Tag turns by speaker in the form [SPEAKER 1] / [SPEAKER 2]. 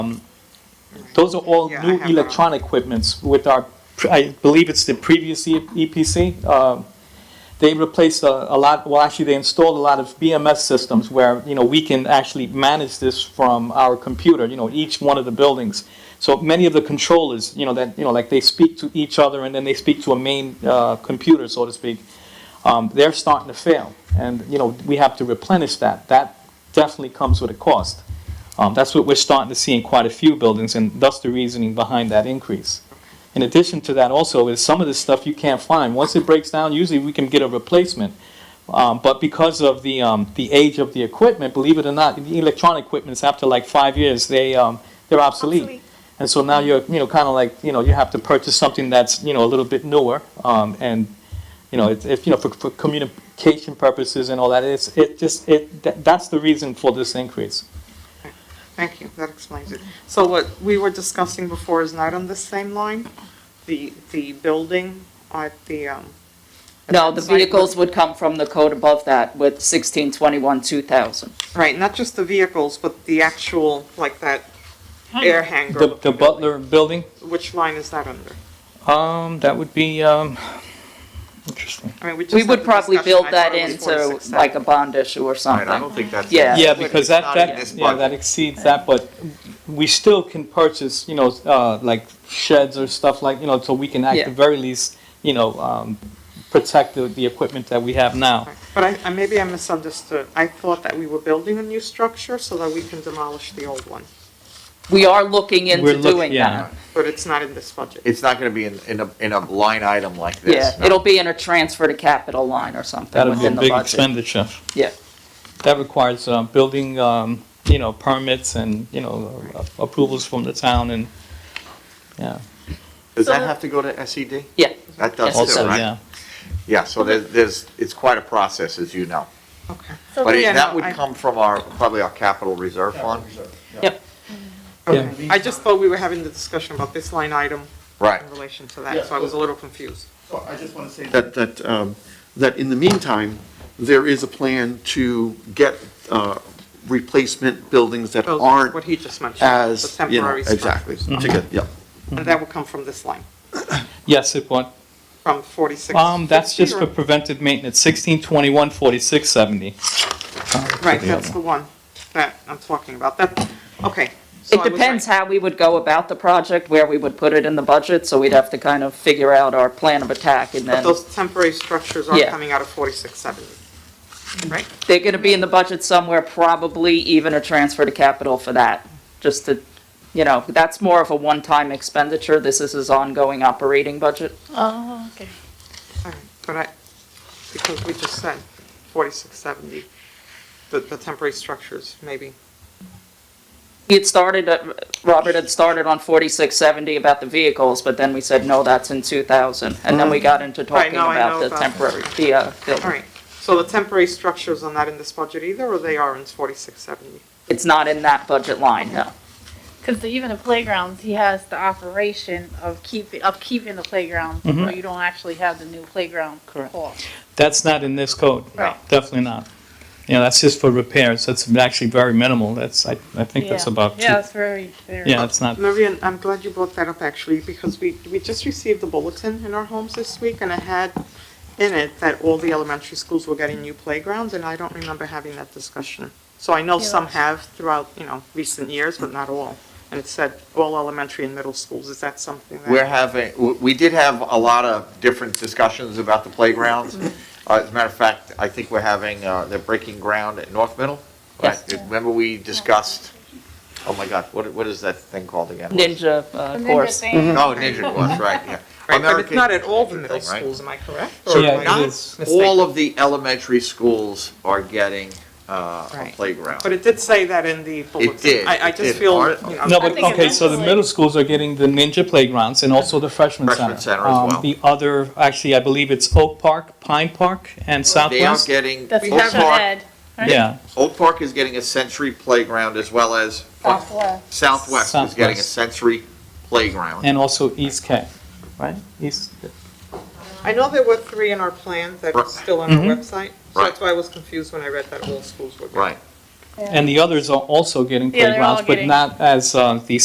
[SPEAKER 1] Those are all
[SPEAKER 2] Yeah, I
[SPEAKER 1] new
[SPEAKER 2] have that on.
[SPEAKER 1] electronic equipments with our, I believe it's the previous E- EPC. uh, They replaced a a lot, well, actually, they installed a lot of BMS systems where, you know, we can actually manage this from our computer, you know, each one of the buildings. So many of the controllers, you know, that, you know, like they speak to each other and then they speak to a main uh, computer, so to speak. Um, They're starting to fail. And, you know, we have to replenish that. That definitely comes with a cost. Um, that's what we're starting to see in quite a few buildings, and thus the reasoning behind that increase. In addition to that, also, is some of this stuff you can't find. Once it breaks down, usually we can get a replacement. Um, but because of the, um, the age of the equipment, believe it or not, the electronic equipment's after like five years, they, um, they're obsolete.
[SPEAKER 3] Obsolete.
[SPEAKER 1] And so now you're, you know, kind of like, you know, you have to purchase something that's, you know, a little bit newer. Um, and, you know, it's, it's, you know, for, for communication purposes and all that, it's, it just, it, that, that's the reason for this increase.
[SPEAKER 2] Thank you, that explains it. So what we were discussing before is not on the same line? The, the building at the, um. at
[SPEAKER 4] No,
[SPEAKER 2] that
[SPEAKER 4] the
[SPEAKER 2] site was-
[SPEAKER 4] vehicles would come from the code above that with 1621, 2000.
[SPEAKER 2] Right, not just the vehicles, but the actual, like that air hangar.
[SPEAKER 1] The, the
[SPEAKER 2] looking
[SPEAKER 1] Butler building,
[SPEAKER 2] building. Which line is that under?
[SPEAKER 1] um, that would be, um, interesting.
[SPEAKER 2] I mean, just
[SPEAKER 4] We
[SPEAKER 2] had
[SPEAKER 4] would
[SPEAKER 2] the
[SPEAKER 4] probably
[SPEAKER 2] discussion.
[SPEAKER 4] build
[SPEAKER 2] I
[SPEAKER 4] that
[SPEAKER 2] thought it was
[SPEAKER 4] into
[SPEAKER 2] 46,000.
[SPEAKER 4] like a bond issue or
[SPEAKER 5] Right, I don't
[SPEAKER 4] something.
[SPEAKER 5] think that's.
[SPEAKER 4] Yeah.
[SPEAKER 1] Yeah,
[SPEAKER 2] But
[SPEAKER 1] because
[SPEAKER 2] it's
[SPEAKER 1] that,
[SPEAKER 2] not in
[SPEAKER 1] that,
[SPEAKER 2] this
[SPEAKER 1] yeah, that
[SPEAKER 5] budget.
[SPEAKER 1] exceeds that, but we still can purchase, you know, uh, like sheds or stuff like, you know, so we can at
[SPEAKER 4] Yeah.
[SPEAKER 1] the very least, you know, um, protect the, the equipment that we have now.
[SPEAKER 2] But I, I, maybe I misunderstood. I thought that we were building a new structure so that we can demolish the old one,
[SPEAKER 4] We are looking
[SPEAKER 1] We're
[SPEAKER 4] into
[SPEAKER 1] look-
[SPEAKER 4] doing
[SPEAKER 1] yeah.
[SPEAKER 4] that.
[SPEAKER 2] but it's not in this budget.
[SPEAKER 5] It's not gonna be in, in a, in a line item like this.
[SPEAKER 4] Yeah,
[SPEAKER 5] no.
[SPEAKER 4] it'll be in a transfer to capital line or something
[SPEAKER 1] That'd be a
[SPEAKER 4] within the
[SPEAKER 1] big
[SPEAKER 4] budget.
[SPEAKER 1] expenditure.
[SPEAKER 4] Yeah,
[SPEAKER 1] That requires, uh, building, um, you know, permits and, you know, uh, approvals from the town and, yeah,
[SPEAKER 5] Does
[SPEAKER 4] So
[SPEAKER 5] that
[SPEAKER 4] the-
[SPEAKER 5] have to go to SED?
[SPEAKER 4] yeah.
[SPEAKER 5] That does
[SPEAKER 4] Yes, it
[SPEAKER 5] too,
[SPEAKER 1] also,
[SPEAKER 4] does.
[SPEAKER 5] right?
[SPEAKER 1] yeah.
[SPEAKER 5] Yeah, so there's, there's, it's quite a process, as you know.
[SPEAKER 2] Okay.
[SPEAKER 3] So
[SPEAKER 5] But
[SPEAKER 3] the-
[SPEAKER 2] yeah,
[SPEAKER 5] it- that
[SPEAKER 2] no,
[SPEAKER 5] would
[SPEAKER 2] I-
[SPEAKER 5] come from our, probably our capital reserve fund.
[SPEAKER 4] Yep.
[SPEAKER 2] Okay. I just thought we were having the discussion about this line item
[SPEAKER 5] Right.
[SPEAKER 2] in relation to that, so I was a little confused.
[SPEAKER 6] Well, I just want to say that, that, um, that in the meantime, there is a plan to get uh, replacement buildings that
[SPEAKER 2] Those-
[SPEAKER 6] aren't
[SPEAKER 2] What he just mentioned. the
[SPEAKER 6] as, you know,
[SPEAKER 2] temporary
[SPEAKER 6] exactly.
[SPEAKER 2] structures.
[SPEAKER 6] to get- yeah.
[SPEAKER 2] And that will come from this line,
[SPEAKER 1] Yes, it would.
[SPEAKER 2] from 46.
[SPEAKER 1] Um, that's just for preventive maintenance, sixteen twenty-one forty-six seventy.
[SPEAKER 2] Right, that's the one that I'm talking about. That, okay. So
[SPEAKER 4] It
[SPEAKER 2] I was
[SPEAKER 4] depends
[SPEAKER 2] right.
[SPEAKER 4] how we would go about the project, where we would put it in the budget, so we'd have to kind of figure out our plan of attack and
[SPEAKER 2] But
[SPEAKER 4] then,
[SPEAKER 2] those temporary structures are
[SPEAKER 4] Yeah.
[SPEAKER 2] coming out of 4670, right?
[SPEAKER 4] they're gonna be in the budget somewhere, probably even a transfer to capital for that, just to, you know, that's more of a one-time expenditure, this is his ongoing operating budget.
[SPEAKER 3] Oh, okay.
[SPEAKER 2] All right, But I, because we just said 4670, the, the temporary structures, maybe.
[SPEAKER 4] He had started, at- Robert had started on forty-six seventy about the vehicles, but then we said, no, that's in two thousand, and then we got into talking
[SPEAKER 2] now Mm-hmm. I know
[SPEAKER 4] about the
[SPEAKER 2] about that.
[SPEAKER 4] temporary, the, uh,
[SPEAKER 2] All
[SPEAKER 4] building.
[SPEAKER 2] right, so the temporary structures are not in this budget either, or they are in 4670?
[SPEAKER 4] It's not in that budget line, no.
[SPEAKER 3] Because even the playgrounds, he has the operation of keeping, of keeping the playground, so
[SPEAKER 1] Mm-hmm.
[SPEAKER 3] you don't actually have the new playground
[SPEAKER 4] Correct.
[SPEAKER 3] hall.
[SPEAKER 1] That's not in this code.
[SPEAKER 3] Right.
[SPEAKER 1] Definitely not. You know, that's just for repairs. That's actually very minimal. That's, I, I think that's
[SPEAKER 3] Yeah.
[SPEAKER 1] about two.
[SPEAKER 3] Yeah, it's very, very.
[SPEAKER 1] Yeah, it's not,
[SPEAKER 2] Marian, I'm glad you brought that up actually, because we, we just received the bulletin in our homes this week and it had in it that all the elementary schools were getting new playgrounds and I don't remember having that discussion. So I know
[SPEAKER 3] Yeah.
[SPEAKER 2] some have throughout, you know, recent years, but not all. And it said all elementary and middle schools. Is that something that?
[SPEAKER 5] We're having, w- we did have a lot of different discussions about the playgrounds. Uh, As a matter of fact, I think we're having, uh, they're breaking ground at North Middle. right?
[SPEAKER 4] Yes.
[SPEAKER 5] Remember we discussed, oh my God, what, what is that thing called again?
[SPEAKER 4] Ninja,
[SPEAKER 3] The
[SPEAKER 4] uh,
[SPEAKER 3] ninja
[SPEAKER 4] course.
[SPEAKER 3] thing,
[SPEAKER 5] Oh, Ninja was, right, yeah.
[SPEAKER 2] Right, but it's
[SPEAKER 5] American-
[SPEAKER 2] not at all the middle
[SPEAKER 5] Right.
[SPEAKER 2] schools, am I correct?
[SPEAKER 5] So
[SPEAKER 2] Or am
[SPEAKER 1] Yeah,
[SPEAKER 2] I
[SPEAKER 1] it
[SPEAKER 2] not
[SPEAKER 1] is.
[SPEAKER 2] mistaken?
[SPEAKER 5] All of the elementary schools are getting uh, a
[SPEAKER 2] Right.
[SPEAKER 5] playground.
[SPEAKER 2] But it did say that in the bulletin.
[SPEAKER 5] did,
[SPEAKER 2] I, I just
[SPEAKER 5] it did.
[SPEAKER 2] feel,
[SPEAKER 5] Our-
[SPEAKER 2] you know.
[SPEAKER 1] no,
[SPEAKER 2] I
[SPEAKER 1] but,
[SPEAKER 2] think it
[SPEAKER 1] okay, so the
[SPEAKER 3] eventually-
[SPEAKER 1] middle schools are getting the ninja playgrounds and also the freshman center.
[SPEAKER 5] Freshman center as
[SPEAKER 1] Um,
[SPEAKER 5] well.
[SPEAKER 1] The other, actually, I believe it's Oak Park, Pine Park, and
[SPEAKER 5] They are
[SPEAKER 1] Southwest.
[SPEAKER 5] getting,
[SPEAKER 3] that's
[SPEAKER 5] Oak
[SPEAKER 3] special
[SPEAKER 5] Park,
[SPEAKER 3] ed, right?
[SPEAKER 1] Yeah,
[SPEAKER 5] Oak Park is getting a sensory playground as well as
[SPEAKER 3] Southwest.
[SPEAKER 5] Southwest is getting a
[SPEAKER 1] Southwest.
[SPEAKER 5] sensory playground.
[SPEAKER 1] and also East K, right? East,
[SPEAKER 2] I know there were three in our plan that are
[SPEAKER 5] Right.
[SPEAKER 2] still on our website, so
[SPEAKER 5] Right.
[SPEAKER 2] that's why I was confused when I read that all schools were. good.
[SPEAKER 5] Right.
[SPEAKER 1] And the others are also getting
[SPEAKER 3] Yeah, they're all
[SPEAKER 1] playgrounds, but
[SPEAKER 3] getting-
[SPEAKER 1] not as, uh, the